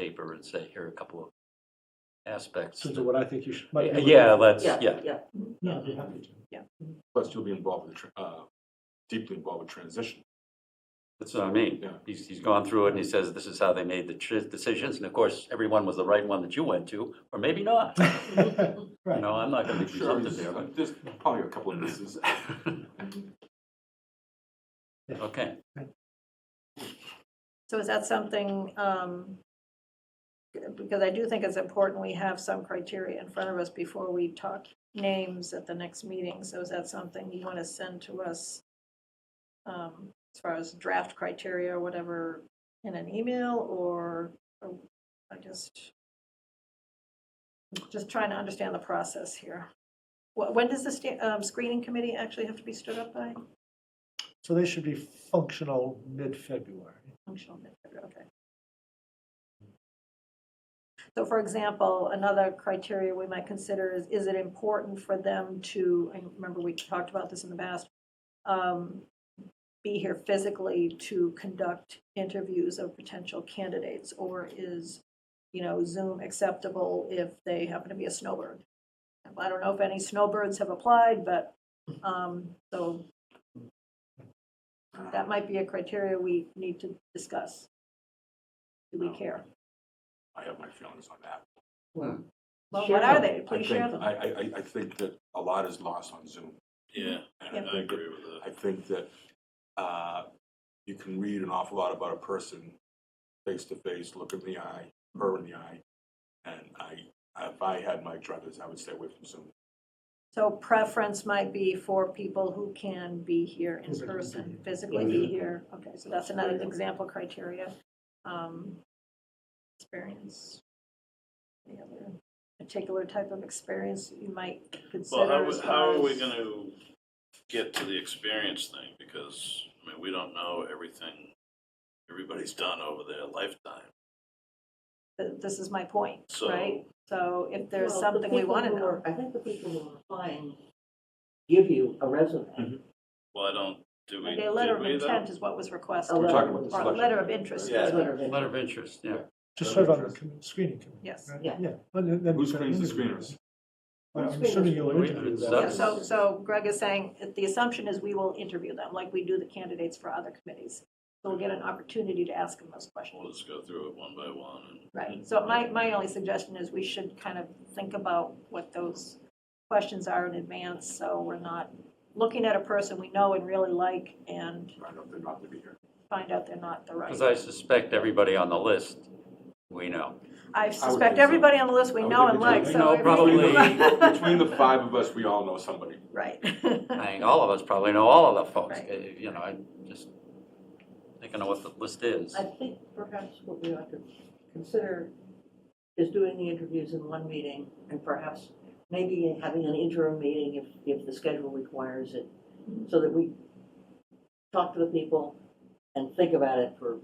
paper and say, here are a couple of aspects. Susan, what I think you should. might be- Uh, Yeah, let's, Yeah, yeah, yeah. Yeah, I'd be happy to. Plus, you'll be involved with, the tr- uh, deeply involved with transition. that's what I mean. Yeah. He's, he's gone through it and he says, this is how they made the tr- decisions. And of course, everyone was the right one that you went to, or maybe not. You Right. know, I'm not gonna be Sure, presumptive there, there's but, there's probably a couple of misses. okay. So is that something, um, because I do think it's important we have some criteria in front of us before we talk names at the next meeting. So is that something you want to send to us um, as far as draft criteria or whatever in an email or, or I just, just trying to understand the process here. Wh- When does the sta- um, screening committee actually have to be stood up by? So they should be functional mid-February. Functional mid-February, okay. So for example, another criteria we might consider is, is it important for them to, I remember we talked about this in the past, um, be here physically to conduct interviews of potential candidates? Or is, you know, Zoom acceptable if they happen to be a snowbird? I don't know if any snowbirds have applied, but, um, so that might be a criteria we need to discuss. Do we care? I have my feelings on that. Well, Share what are them. they? I Please share think, them. I, I, I- I think that a lot is lost on Zoom. Yeah, I And I I think that, agree with that. I think that, uh, you can read an awful lot about a person face to face, look in the eye, her in the eye. And I, if I had my druthers, I would stay away from Zoom. So preference might be for people who can be here in Who can be person, here. physically Yeah. be here. Okay, so that's another example criteria. Um, Experience. Any other particular type of experience you might Well, consider how, as w- how far are we as- gonna get to the experience thing? Because, I mean, we don't know everything everybody's done over their lifetime. Th- This is my point, So- right? So if there's Well, the something we people want to who know. are- I think the people who are applying give you a resume. Well, I don't, do we, Like a did letter of we though? intent is what was requested, or Oh, A We're letter talking of about the a selection. letter of interest Yeah. is what Letter of Letter interest. of interest, yeah. Just serve on the com- screening committee. Yes. right? Yeah. Yeah. And then- then- Who screens the screeners? I'm assuming you'll We- interview it's Yeah, that. That's- so, so Greg is saying, if the assumption is we will interview them, like we do the candidates for other committees. So we'll get an opportunity to ask them those questions, We'll just go through it one by one and. right? So my, my only suggestion is we should kind of think about what those questions are in advance, so we're not looking at a person we know and really like and I don't, they're not to be here. find out they're not the Because right. I suspect everybody on the list, we know. I think suspect so. everybody on the list we I would know think and we like, do. so. We know every- probably- Between the five of us, we all know somebody. Right. I think all of us probably know all of the folks, Right. Uh, you know, I just, think I know what the list is. I think perhaps what we ought to consider is doing the interviews in one meeting and perhaps maybe having an interim meeting if, if the schedule requires it, Mm-hmm. so that we talk to the people and think about it for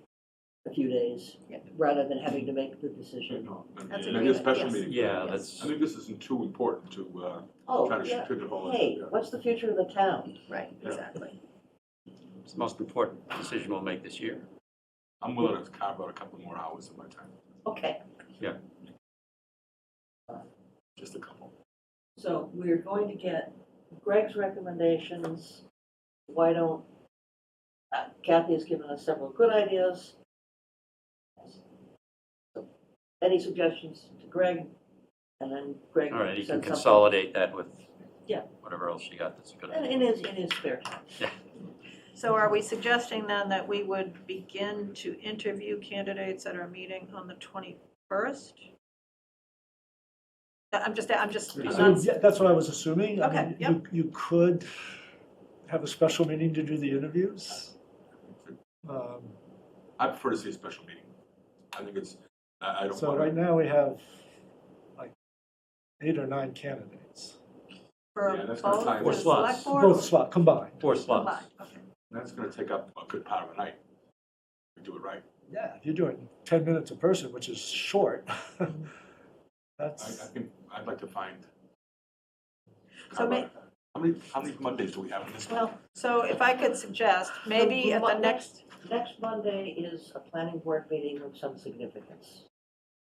a few days, Yeah. rather than having to make the decision. That's That's a Maybe a good- special yes. meeting. Yeah, Yes. that's, I think this isn't too important to, uh, Oh, try to yeah. shoot it all. in. Hey, Yeah. what's the future of the town? Right, exactly. it's the most important decision we'll make this year. I'm willing to carve out a couple more hours of my time, Okay, just a couple. so we're going to get Greg's recommendations. Why don't, uh, Kathy has given us several good ideas. Any suggestions to Greg? And then Greg All right, you can said something. consolidate that with Yeah. whatever else you got that's a good And in his, in his spare time. So are we suggesting then that we would begin to interview candidates at our meeting on the 21st? Uh, I'm just, I'm just, I'm So, not, yeah, That's what I was assuming. I Okay, mean, yep. you- You could have a special meeting to do the interviews. Um, I prefer to see a special meeting. I think it's, I, I don't So right want to. now, we have like eight or nine candidates, Yeah, for that's not both time. the Or slots. select board? both slot combined. Four or slots. combined? Okay. That's gonna take up a good part of the night. We do it right. Yeah, if you're doing 10 minutes a person, which is short. I, I That's, think, I'd like to find. So carve may- out that. How many, how many Mondays do we have in this? Well, so if I could suggest, maybe at the what- next, Next Monday is a planning board meeting of some significance.